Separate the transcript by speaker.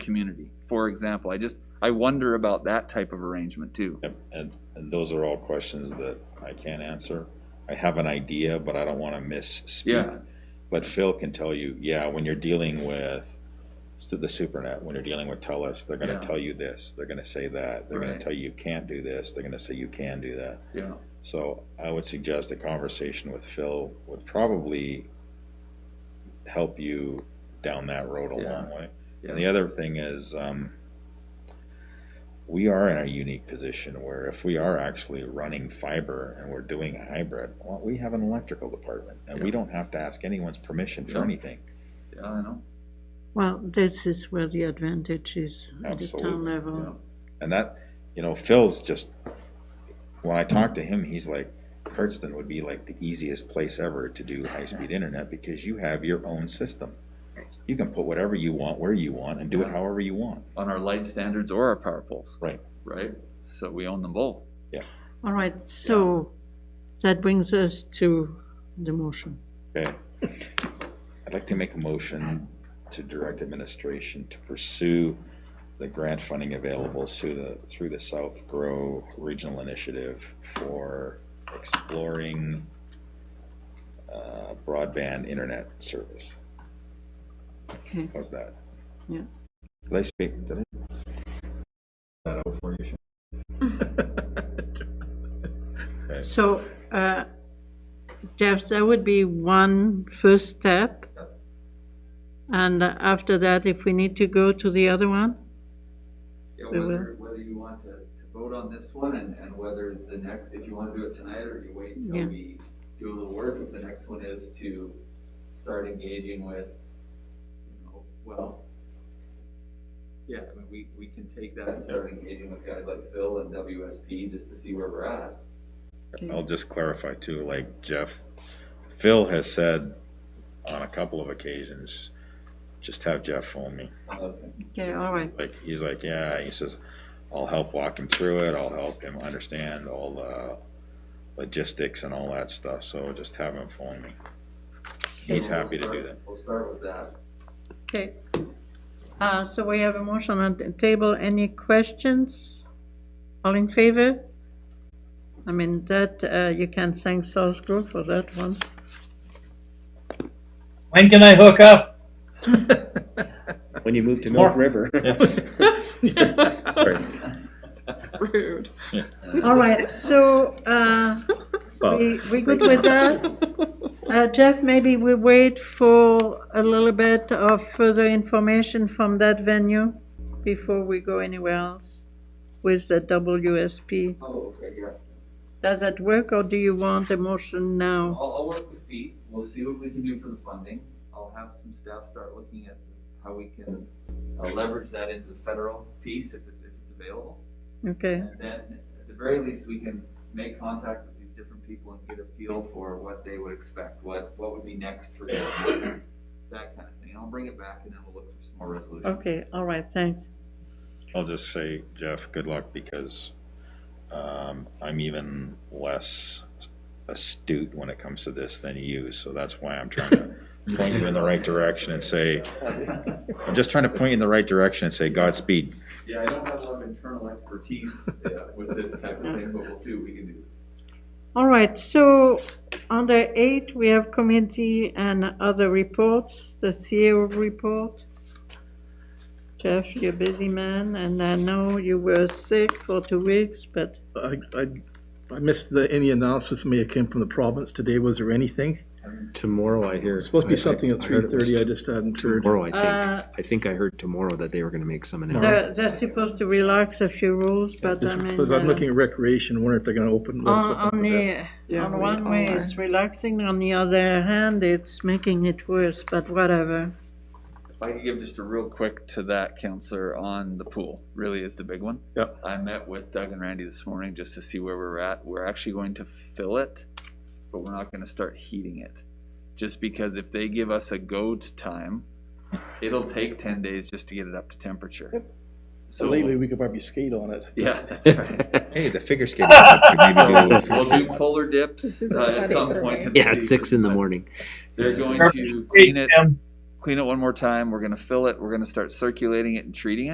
Speaker 1: community, for example. I just, I wonder about that type of arrangement too.
Speaker 2: Yep, and, and those are all questions that I can't answer. I have an idea, but I don't wanna
Speaker 1: Yeah.
Speaker 2: misspeak. But Phil can tell you, yeah, when you're dealing with, it's to the supernet, when you're dealing with TELUS, they're
Speaker 1: Yeah.
Speaker 2: gonna tell you this, they're gonna say that, they're gonna
Speaker 1: Right.
Speaker 2: tell you you can't do this, they're gonna say you can do that.
Speaker 1: Yeah.
Speaker 2: So I would suggest a conversation with Phil would probably help you down that road a
Speaker 1: Yeah.
Speaker 2: long way. And the
Speaker 1: Yeah.
Speaker 2: other thing is, um, we are in a unique position where if we are actually running fiber and we're doing hybrid, well, we have an electrical department and we
Speaker 1: Yeah.
Speaker 2: don't have to ask anyone's permission for
Speaker 1: Yeah.
Speaker 2: anything.
Speaker 1: Yeah, I know.
Speaker 3: Well, this is where the advantage is at the town
Speaker 2: Absolutely,
Speaker 3: level.
Speaker 2: And that, you know, Phil's just, when I talk to him, he's like, Kurtzton would be like the easiest place ever to do high-speed internet because you have your own system. You can put whatever you want, where you want, and do it
Speaker 1: Yeah.
Speaker 2: however you want.
Speaker 1: On our light standards or our power poles.
Speaker 2: Right.
Speaker 1: Right? So we own them both.
Speaker 3: All right, so that brings us to the motion.
Speaker 2: Okay. I'd like to make a motion to direct administration to pursue the grant funding available through the, through the South Grow Regional Initiative for exploring uh, broadband internet service.
Speaker 3: Okay,
Speaker 2: How's that?
Speaker 3: Yeah.
Speaker 2: Did I speak, did I? That out for you? Sean? Okay.
Speaker 3: so, uh, Jeff, that would be one first step. And after that, if we need to go to the other one?
Speaker 1: Yeah,
Speaker 3: We will.
Speaker 1: whether, whether you want to, to vote on this one and, and whether the next, if you wanna do it tonight or you wait
Speaker 3: Yeah.
Speaker 1: until we do a little work, if the next one is to start engaging with, you know, well, yeah, I mean, we, we can take that and start engaging with guys like Phil and WSP just to see where we're at.
Speaker 2: I'll just clarify too, like Jeff, Phil has said on a couple of occasions, just have Jeff phone me.
Speaker 1: Okay.
Speaker 3: Okay, all right,
Speaker 2: Like, he's like, yeah, he says, I'll help walk him through it, I'll help him understand all the logistics and all that stuff, so just have him phone me. He's
Speaker 1: So we'll
Speaker 2: happy to do
Speaker 1: start-
Speaker 2: that.
Speaker 1: We'll start with that.
Speaker 3: okay. Uh, so we have a motion on the table, any questions? All in favor? I mean, that, uh, you can thank South Grove for that one.
Speaker 4: When can I hook up?
Speaker 5: When you move to Milk
Speaker 4: Tomorrow.
Speaker 5: River. Sorry.
Speaker 6: Rude.
Speaker 3: All right, so, uh,
Speaker 2: Oh,
Speaker 5: Well,
Speaker 3: we, we good with that? Uh, Jeff, maybe we wait for a little bit of further information from that venue before we go anywhere else with the WSP.
Speaker 1: Oh, okay, yeah.
Speaker 3: Does that work, or do you want a motion now?
Speaker 1: I'll, I'll work with Pete, we'll see what we can do for the funding, I'll have some staff start looking at how we can uh, leverage that into the federal piece if it's, if it's available.
Speaker 3: Okay,
Speaker 1: And then, at the very least, we can make contact with these different people and get a feel for what they would expect, what, what would be next for them, that kind of thing, I'll bring it back and then we'll look for some more resolution.
Speaker 3: okay, all right, thanks.
Speaker 2: I'll just say, Jeff, good luck because um, I'm even less astute when it comes to this than you, so that's why I'm trying to point you in the right direction and say, I'm just trying to point you in the right direction and say Godspeed.
Speaker 1: Yeah, I don't have a lot of internal expertise uh, with this type of thing, but we'll see what we can do.
Speaker 3: All right, so under eight, we have committee and other reports, the CEO report. Jeff, you're a busy man, and I know you were sick for two weeks, but,
Speaker 7: I, I, I missed the, any announcements may have came from the province today. Was there anything?
Speaker 5: Tomorrow, I hear.
Speaker 7: Supposed to
Speaker 5: I-
Speaker 7: be something at
Speaker 5: I heard
Speaker 7: three
Speaker 5: it was
Speaker 7: thirty. I just hadn't heard.
Speaker 5: Tomorrow, I
Speaker 3: Uh,
Speaker 5: think. I think I heard tomorrow that they were gonna make some announcement.
Speaker 3: they're, they're supposed to relax a few rules, but I mean.
Speaker 7: Because I'm
Speaker 3: uh,
Speaker 7: looking at recreation, wondering if they're gonna open.
Speaker 3: On, on the,
Speaker 6: Yeah,
Speaker 3: on
Speaker 6: we
Speaker 3: one way
Speaker 6: are.
Speaker 3: it's relaxing, on the other hand, it's making it worse, but whatever.
Speaker 1: If I could give just a real quick to that, Counselor, on the pool, really is the big one.
Speaker 7: Yep.
Speaker 1: I met with Doug and Randy this morning just to see where we're at. We're actually going to fill it, but we're not gonna start heating it. Just because if they give us a go time, it'll take ten days just to get it up to temperature. So,
Speaker 7: So lately, we could probably skate on it.
Speaker 1: yeah, that's right.
Speaker 2: Hey, the figure skating. club could maybe do a little
Speaker 1: We'll do
Speaker 2: figure-
Speaker 1: polar dips
Speaker 6: This is
Speaker 1: uh, at some
Speaker 6: funny.
Speaker 1: point. in the
Speaker 5: Yeah, at six
Speaker 1: season,
Speaker 5: in the
Speaker 1: but
Speaker 5: morning.
Speaker 1: They're going to
Speaker 4: Perfect.
Speaker 1: clean it,
Speaker 4: Tim.
Speaker 1: clean it one more time, we're gonna fill it, we're gonna start circulating it and treating it.